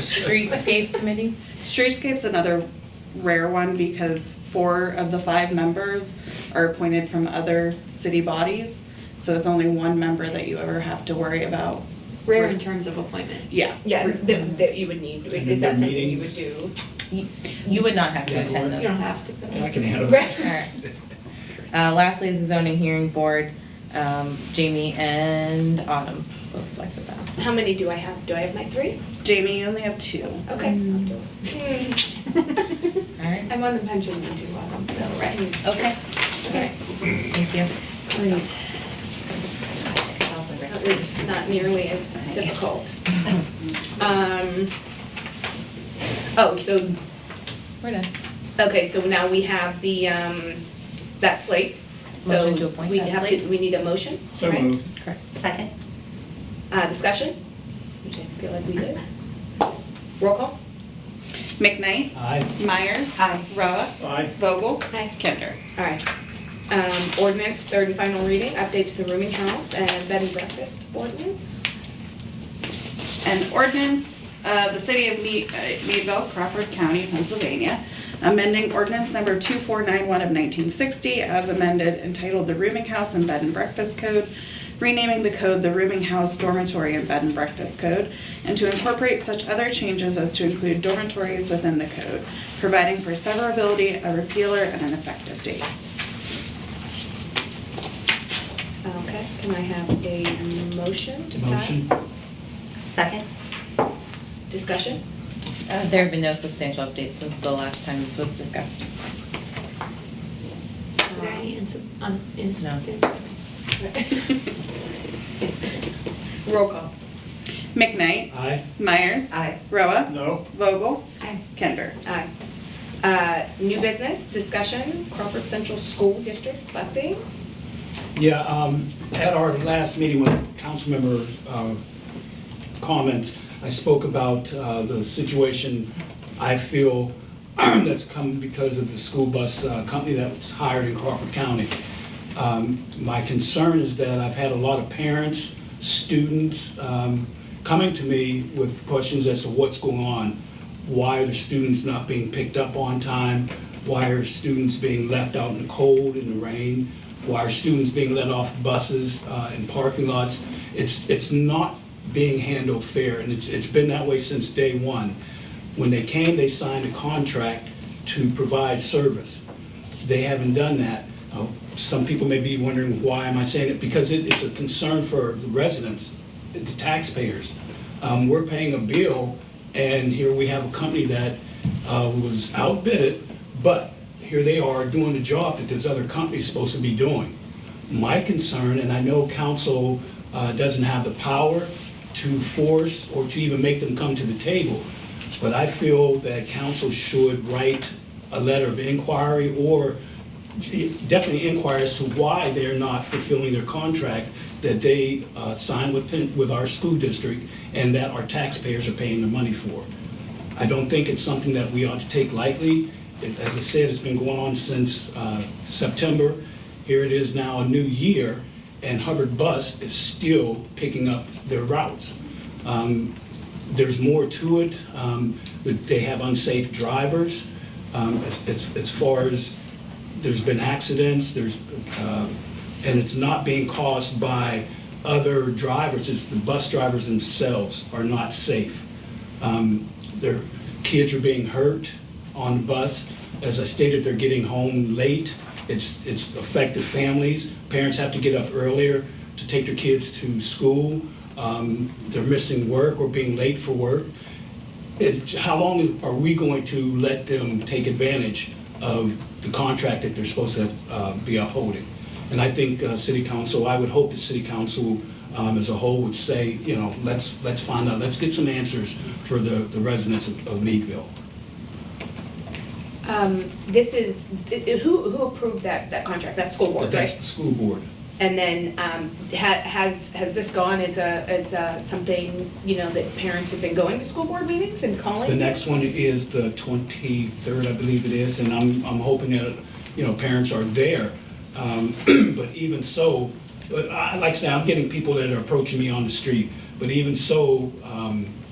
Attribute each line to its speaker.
Speaker 1: Streetscape committee?
Speaker 2: Streetscape's another rare one because four of the five members are appointed from other city bodies. So it's only one member that you ever have to worry about.
Speaker 3: Rare in terms of appointment.
Speaker 2: Yeah.
Speaker 4: Yeah, that, that you would need,
Speaker 5: And
Speaker 4: is that
Speaker 5: the
Speaker 4: something you would
Speaker 5: meetings.
Speaker 4: do?
Speaker 1: You you would not have
Speaker 5: Yeah,
Speaker 1: to
Speaker 5: you
Speaker 1: attend
Speaker 5: would.
Speaker 1: those.
Speaker 3: You don't have to go.
Speaker 5: I can handle
Speaker 4: Right.
Speaker 5: that.
Speaker 1: Alright. Uh, lastly is the zoning hearing board. Um, Jamie and Autumn both selected that.
Speaker 4: How many do I have? Do I have my three?
Speaker 2: Jamie, you only have two.
Speaker 4: Okay. I'll do it.
Speaker 1: Alright,
Speaker 3: I'm on the pension one too, Autumn, so, right.
Speaker 1: okay, alright, thank you.
Speaker 3: Great.
Speaker 4: That was not nearly as difficult. Um, oh, so,
Speaker 1: We're done.
Speaker 4: okay, so now we have the, um, that slate. So
Speaker 1: Motion to appoint
Speaker 4: we
Speaker 1: that
Speaker 4: have to-
Speaker 1: slate.
Speaker 4: We need a motion,
Speaker 5: So
Speaker 4: right?
Speaker 5: moved.
Speaker 1: Correct.
Speaker 6: Second?
Speaker 4: Uh, discussion, which I feel like we did. Roll call?
Speaker 2: McKnight,
Speaker 5: Aye.
Speaker 2: Myers.
Speaker 6: Aye.
Speaker 2: Roa.
Speaker 5: Aye.
Speaker 2: Vogel.
Speaker 4: Aye.
Speaker 2: Kinder.
Speaker 4: All right. Um, ordinance, third and final reading, update to the rooming house and bed and breakfast ordinance.
Speaker 2: An ordinance of the city of Me- uh, Meadville, Crawford County, Pennsylvania, amending ordinance number 2491 of 1960 as amended entitled the Rooming House and Bed and Breakfast Code, renaming the code the Rooming House Dormitory and Bed and Breakfast Code, and to incorporate such other changes as to include dormitories within the code, providing for severability, a repealer, and an effective date.
Speaker 4: Okay, can I have a motion to pass?
Speaker 5: Motion.
Speaker 6: Second?
Speaker 4: Discussion?
Speaker 1: Uh, there have been no substantial updates since the last time this was discussed.
Speaker 3: Are there any
Speaker 4: Um,
Speaker 3: insub, um, insubstantial?
Speaker 4: Roll call.
Speaker 2: McKnight,
Speaker 5: Aye.
Speaker 2: Myers,
Speaker 6: Aye.
Speaker 2: Roa,
Speaker 5: No.
Speaker 2: Vogel,
Speaker 3: Aye.
Speaker 2: Kinder.
Speaker 4: Aye. Uh, new business, discussion, Crawford Central School District busing.
Speaker 5: Yeah, um, at our last meeting with council member, uh, comments, I spoke about, uh, the situation I feel that's come because of the school bus, uh, company that was hired in Crawford County. Um, my concern is that I've had a lot of parents, students, um, coming to me with questions as to what's going on. Why are the students not being picked up on time? Why are students being left out in the cold, in the rain? Why are students being let off buses uh, in parking lots? It's, it's not being handled fair, and it's, it's been that way since day one. When they came, they signed a contract to provide service. They haven't done that. Uh, Some people may be wondering, why am I saying it? Because it, it's a concern for the residents, the taxpayers. Um, we're paying a bill, and here we have a company that, uh, was outbid, but here they are doing the job that this other company is supposed to be doing. My concern, and I know council, uh, doesn't have the power to force or to even make them come to the table, but I feel that council should write a letter of inquiry or definitely inquire as to why they're not fulfilling their contract that they uh, signed with, Penn- with our school district and that our taxpayers are paying the money for. I don't think it's something that we ought to take lightly. It- As I said, it's been going on since uh, September. Here it is now, a new year, and Hubbard Bus is still picking up their routes Um, there's more to it. Um, that They have unsafe drivers. Um, As as- as far as, there's been accidents, there's, uh, and it's not being caused by other drivers, it's the bus drivers themselves are not safe. Um, Their kids are being hurt on the bus. As I stated, they're getting home late. It's, it's affected families. Parents have to get up earlier to take their kids to school. Um, They're missing work or being late for work. It's, how long are we going to let them take advantage of the contract that they're supposed to uh, be upholding? And I think uh, city council, I would hope the city council um, as a whole would say, you know, let's, let's find out, let's get some answers for the the residents of of Meadville.
Speaker 4: Um, this is, i- i- who, who approved that, that contract, that school board,
Speaker 5: That's
Speaker 4: right?
Speaker 5: the school board.
Speaker 4: And then, um, ha- has, has this gone as a, as a something, you know, that parents have been going to school board meetings and calling?
Speaker 5: The next one is the 23rd, I believe it is, and I'm, I'm hoping that, you know, parents are there. Um, But even so, but I, like I say, I'm getting people that are approaching me on the street, but even so, um,